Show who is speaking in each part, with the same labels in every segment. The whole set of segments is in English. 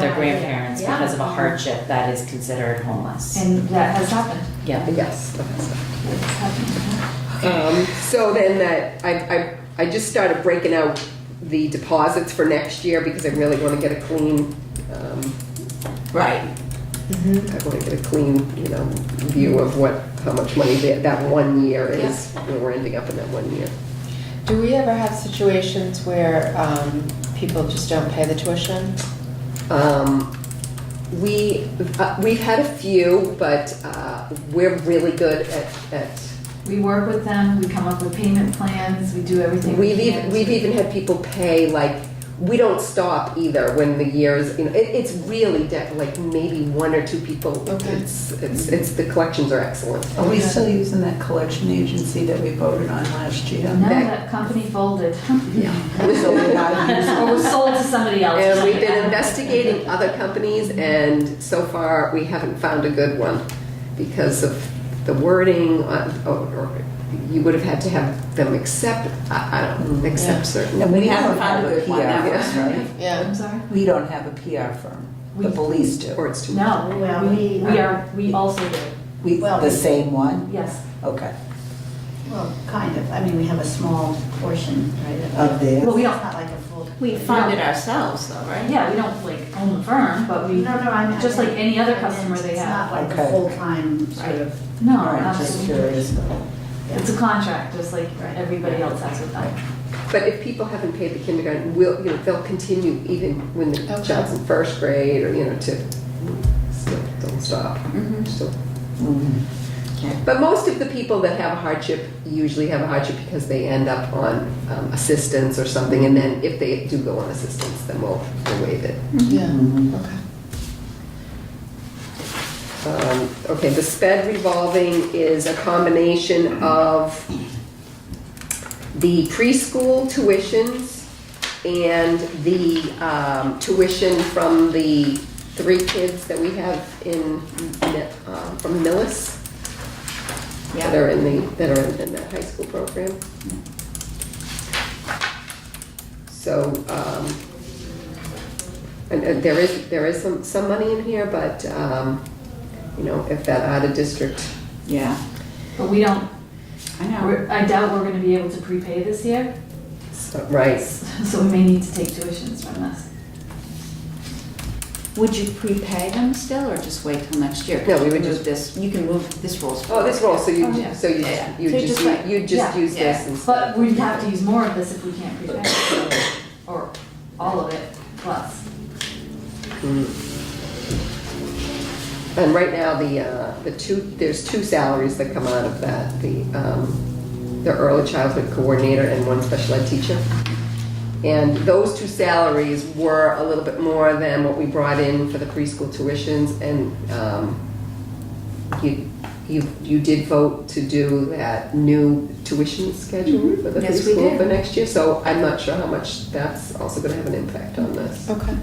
Speaker 1: their grandparents
Speaker 2: Yeah.
Speaker 1: because of a hardship that is considered homeless.
Speaker 2: And that has happened.
Speaker 1: Yeah.
Speaker 3: Yes. okay, so.
Speaker 2: It's happened.
Speaker 3: Um, So then that, I, I, I just started breaking out the deposits for next year because I really want to get a clean, um,
Speaker 4: Right.
Speaker 5: Mm-hmm.
Speaker 3: I want to get a clean, you know, view of what, how much money that, that one year is, where we're ending up in that one year.
Speaker 5: Do we ever have situations where um, people just don't pay the tuition?
Speaker 3: Um, we, uh, we've had a few, but, uh, we're really good at, at
Speaker 2: We work with them, we come up with payment plans, we do everything we
Speaker 3: We've
Speaker 2: can.
Speaker 3: even, we've e-, even had people pay, like, we don't stop either when the years, you know, it, it's really de- like maybe one or two people.
Speaker 5: Okay.
Speaker 3: It's, it's, it's, the collections are excellent.
Speaker 4: Are we still using that collection agency that we voted on last year?
Speaker 2: No,
Speaker 3: back-
Speaker 2: that company folded.
Speaker 4: So we're not using-
Speaker 2: Or was sold to somebody else.
Speaker 3: And we've been investigating other companies and so far we haven't found a good one because of the wording uh, or, or you would have had to have them accept, I, I don't, accept certain.
Speaker 4: And we haven't found a good one, that's right.
Speaker 5: Yeah.
Speaker 2: I'm sorry?
Speaker 4: We don't have a PR firm. The
Speaker 2: We-
Speaker 4: police do.
Speaker 3: Or it's too.
Speaker 2: No,
Speaker 6: Well,
Speaker 2: we,
Speaker 6: we-
Speaker 2: we are, we also do,
Speaker 4: We,
Speaker 6: Well-
Speaker 4: the same one?
Speaker 2: yes.
Speaker 4: Okay.
Speaker 6: Well, kind of, I mean, we have a small portion, right?
Speaker 4: Of theirs.
Speaker 2: Well, we
Speaker 6: It's
Speaker 2: don't,
Speaker 6: not like a full.
Speaker 7: We fund it ourselves though, right?
Speaker 2: yeah, we don't like own the firm, but we,
Speaker 6: No, no, I'm.
Speaker 2: just like any other customer they
Speaker 6: It's
Speaker 2: have.
Speaker 6: not like
Speaker 4: Okay.
Speaker 6: a full-time sort of,
Speaker 2: no,
Speaker 4: All right, just
Speaker 2: absolutely.
Speaker 4: curious.
Speaker 2: It's a contract, just like
Speaker 6: Right.
Speaker 2: everybody else has with them.
Speaker 3: But if people haven't paid the kindergarten, will, you know, they'll continue even when the
Speaker 5: Okay.
Speaker 3: child's in first grade or, you know, to, still, don't stop. Still.
Speaker 4: Mhm.
Speaker 3: But most of the people that have a hardship usually have a hardship because they end up on um, assistance or something. And then if they do go on assistance, then we'll we'll waive it.
Speaker 5: Yeah.
Speaker 4: Mhm.
Speaker 5: Okay.
Speaker 3: Um, Okay, the sped revolving is a combination of the preschool tuitions and the um, tuition from the three kids that we have in, um, from Millis, that are in the, that are in that high school program. So, um, and, and there is, there is some, some money in here, but, um, you know, if that out of district,
Speaker 7: Yeah,
Speaker 2: But we don't,
Speaker 7: I know.
Speaker 2: we're- I doubt we're gonna be able to prepay this year,
Speaker 3: right,
Speaker 2: so we may need to take tuitions from this.
Speaker 7: Would you prepay them still or just wait till next year?
Speaker 3: No, we
Speaker 7: Move
Speaker 3: would just-
Speaker 7: This, you can move this rolls
Speaker 3: oh,
Speaker 7: forward.
Speaker 3: this roll, so you,
Speaker 2: Oh,
Speaker 3: ju-
Speaker 2: yeah.
Speaker 3: so you,
Speaker 7: Yeah.
Speaker 3: you
Speaker 7: So you
Speaker 3: just,
Speaker 7: just like-
Speaker 3: you just
Speaker 2: yeah,
Speaker 3: use
Speaker 7: yeah.
Speaker 3: this instead.
Speaker 2: But we'd have to use more of this if we can't prepay, it, or all of it plus.
Speaker 3: And right now, the, uh, the two, there's two salaries that come out of that, the, um, the early childhood coordinator and one special ed teacher. And those two salaries were a little bit more than what we brought in for the preschool tuitions, and, um, you, you, you did vote to do that new tuition schedule for
Speaker 7: Mm-hmm.
Speaker 3: the
Speaker 7: Yes, we
Speaker 3: preschool
Speaker 7: did.
Speaker 3: for next year, so I'm not sure how much that's also gonna have an impact on this.
Speaker 5: Okay.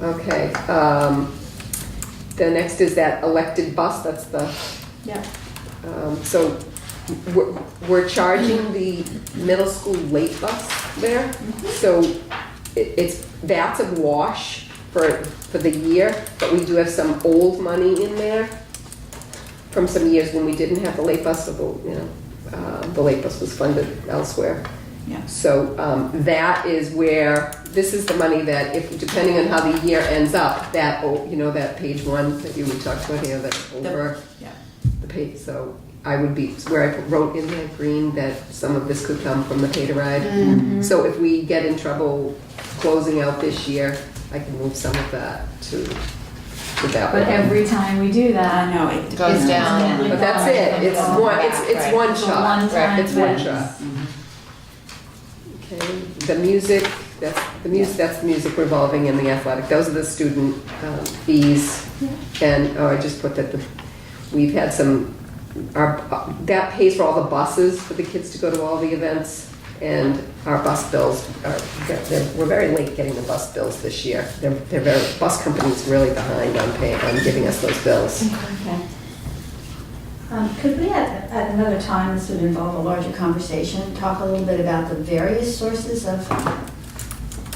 Speaker 3: Okay, um, the next is that elected bus, that's the,
Speaker 7: Yeah.
Speaker 3: um, so we're, we're charging the middle school late bus there. So it, it's, that's a wash for, for the year, but we do have some old money in there from some years when we didn't have the late bus, so, the, you know, uh, the late bus was funded elsewhere.
Speaker 7: Yeah.
Speaker 3: So um, that is where, this is the money that if, depending on how the year ends up, that, o- you know, that page one that you would talk about here, that's over
Speaker 7: yeah.
Speaker 3: the page, so I would be, where I wrote in there green that some of this could come from the
Speaker 2: Mm-hmm.
Speaker 3: pay-to-ride. So if we get in trouble closing out this year, I can move some of that to, to that one.
Speaker 2: But every time we do
Speaker 7: I
Speaker 2: that,
Speaker 7: know, it
Speaker 5: Goes
Speaker 7: it's-
Speaker 5: down.
Speaker 3: But that's it, it's one, it's, it's
Speaker 5: Right.
Speaker 3: one
Speaker 2: it's a
Speaker 3: shot.
Speaker 2: one-time
Speaker 3: It's one
Speaker 2: fix.
Speaker 3: shot. Okay, the music, that's, the music, that's the music revolving in the athletic, those are the student um, fees. And, oh, I just put that, the we've had some, our, that pays for all the buses for the kids to go to all the events. And our bus bills are, they're- we're very late getting the bus bills this year. They're, they're very, bus company's really behind on paying, on giving us those bills.
Speaker 6: Um, could we at, at another time, this would involve a larger conversation, talk a little bit about the various sources of